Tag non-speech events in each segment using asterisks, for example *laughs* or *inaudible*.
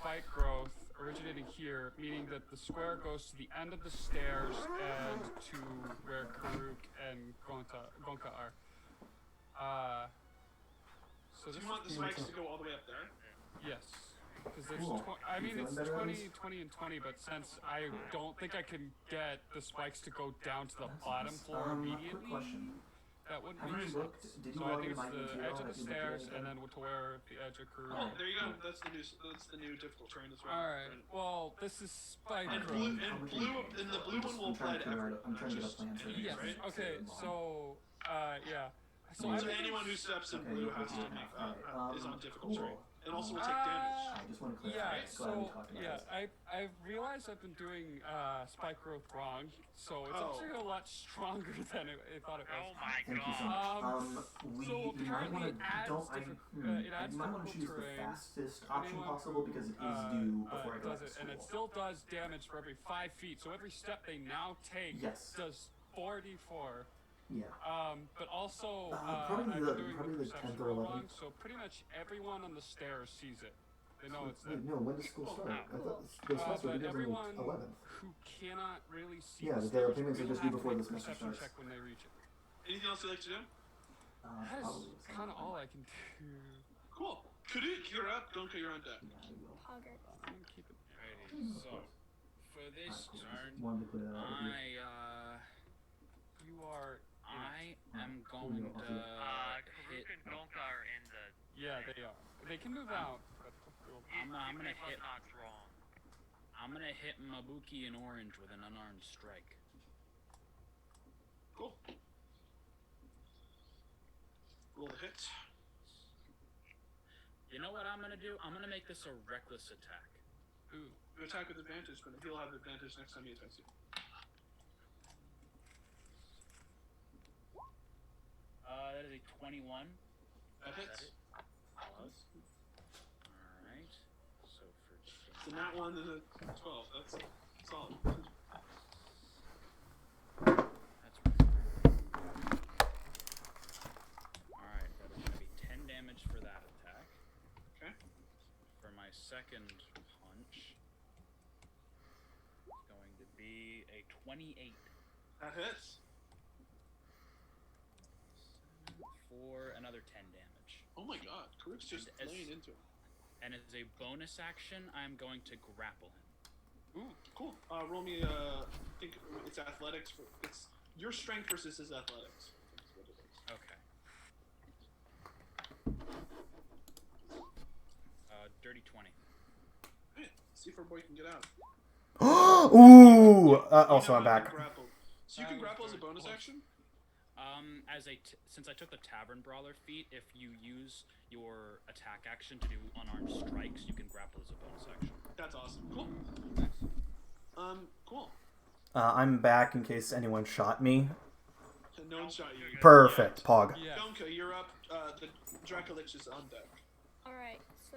height growth originating here, meaning that the square goes to the end of the stairs and to where Karuk and Gonta, Gonka are. Uh, so Do this you want the is spikes to go all the way up there? yes, because there's Cool. tw- I You mean feeling it's better, 20, Elise? 20, and 20, but since I don't think I can get the spikes to go down to the That's bottom nice. floor Um, immediately, Quick question. that wouldn't Have make you sense. looked? Did you so I already think it's mine the material edge of the that you looked stairs at and again? then to where the edge of Karuk. Oh, Alright. there you go. That's the new. That's the new difficult terrain as well. All right. Well, this is spike And growth. blue How and much blue is it? and the blue one will I'm trying apply to to figure everyone. out- I'm not trying to get a just plan for enemies, Yes. right? Okay. So, uh, yeah. So So I think anyone who it's- *laughs* steps in Okay, blue you has to can- make all uh, right, uh, is um, on difficult terrain, cool. and also will Uh, take damage. I just want to clarify. yeah. Glad we So talked about yeah, this. I I've realized I've been doing uh, spike growth wrong, so it's Oh. actually a lot stronger *laughs* than it, I thought it Oh was. my Thank you so god. much. Um, Um, we so you might apparently want to it adds don't. I, different- hmm, uh, it adds you might want to difficult choose terrain. the fastest option Anyone possible who, because it is uh, due uh, before I does go back to it, school. and it still does damage for every five feet. So every step they now take Yes. does 44. yeah. Um, but also, Uh, uh, probably I've the- been doing probably the the 10th perception or roll 11th. wrong, so pretty much everyone on the stairs sees it. They know it's there. Wait, no. When does school Oh, start? I cool. thought the Uh, starts were but the everyone eleventh. who cannot really see Yeah, the the stairs payments will will just be have to before make this a semester perception starts. check when they reach it. Anything else you'd like to do? Uh, That is probably it's kind of all I eleventh. can do. Cool. Karuk, you're up. Gonka, you're on deck. Yeah, I will. Hogger. I'm gonna keep it- Alrighty, so for Alright, this cool. Just turn, wanted to clear that out with you. I uh You are. I Yeah. am Oh, going no, I'll to do it. uh, Uh, hit. Karuk and Gonka are in the. Yeah, they are. They can move out. but they'll- I'm, I'm gonna hit. Not wrong. I'm gonna hit Mabuki in orange with an unarmed strike. Cool. Roll the hit. You know what I'm gonna do? I'm gonna make this a reckless attack. Ooh. You attack with advantage, but he'll have advantage next time he attacks you. Uh, that is a 21. That Is hits. that it? All right. So So for damage- not one and a twelve. That's solid. That's Alright, that is gonna be 10 damage for that attack. Okay. For my second punch, it's going to be a 28 That hits. for another 10 damage. Oh my god, Karuk's just And as- laying into him. And as a bonus action, I'm going to grapple him. Ooh, cool. Uh, roll me. Uh, I think it's athletics. For, it's your strength versus his athletics. That's what it is. Okay. Uh, dirty 20. Alright, See if our boy can get out. Ooh! Uh, also, You know you can I'm back. Grapple. So you That can was grapple as a very bonus close. action. Um, as a t- since I took the tavern brawler feat, if you use your attack action to do unarmed strikes, you can grapple as a bonus action. That's awesome. Cool. Um, cool. Uh, I'm back in case anyone shot me. And no one shot you. Perfect, Pog. Yeah. Gonka, you're up. Uh, the Dracolich is on deck. Alright, so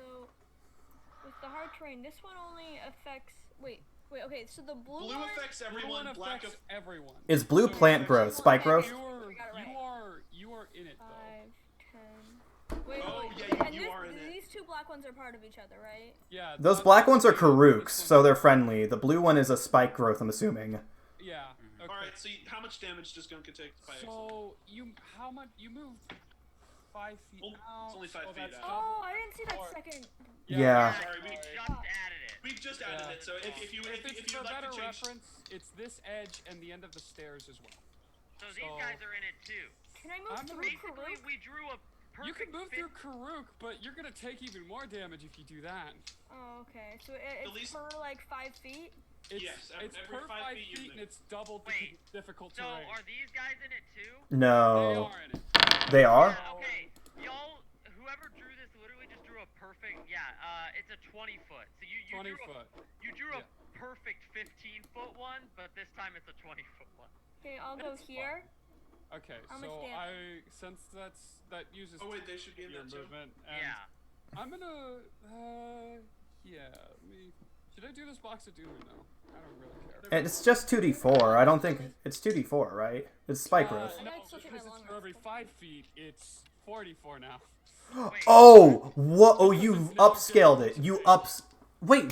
with the hard terrain, this one only affects. Wait, wait, okay, so the blue, Blue one. affects Blue everyone. one Black affects aff- everyone. Is blue So plant growth spike growth? You are. We got it You right. are. You are in it though. 5, 10. Wait, Oh, wait, yeah, wait, you- and you this, are in it. These two black ones are part of each other, right? Yeah. Those the- black ones are this one- Karooks, so they're friendly. The blue one is a spike growth, I'm assuming. Yeah. Okay. All right. Mm-hmm. So you, how much damage does Gonka take by accident? So you how much you moved five feet Only- it's out? only five so feet that's out. double. Oh, I didn't see that Or- second. Yeah. Sorry, we- We just added it. We've just added Yeah. it. So if, if you if, If it's if for you'd like better to change, reference, it's this edge and the end of the stairs as well. So these So- guys are in it too. Can I move I'm through Basically, Karuk? we drew a perfect. You can move fit- through Karuk, but you're gonna take even more damage if you do that. Oh, okay. So it, it's least- per like 5 feet? It's, Yes, ev- it's every per five five feet you feet and move. it's double the Wait, difficult So terrain. are these guys in it too? They No. are in it. They are? Yeah, okay, y'all. Whoever drew this literally just drew a perfect. Yeah, uh, it's a 20 foot. So you you 20 drew foot. A, you drew a perfect 15 foot one, but this time it's a 20 foot one. Okay, I'll go fine. here. Okay, How much so damage? I since that's that uses oh wait, they should be in your that too. movement. And Yeah. I'm gonna uh yeah, let me should I do this box of doom or no? I don't really care. It's just 2d4. I don't think. It's 2d4, right? It's spike Uh, growth. no, I know it's supposed to be because my it's long for every rest, but- five feet, it's 44 now. Wait, Oh! Whoa! Oh, you upscaled it. You ups. Wait,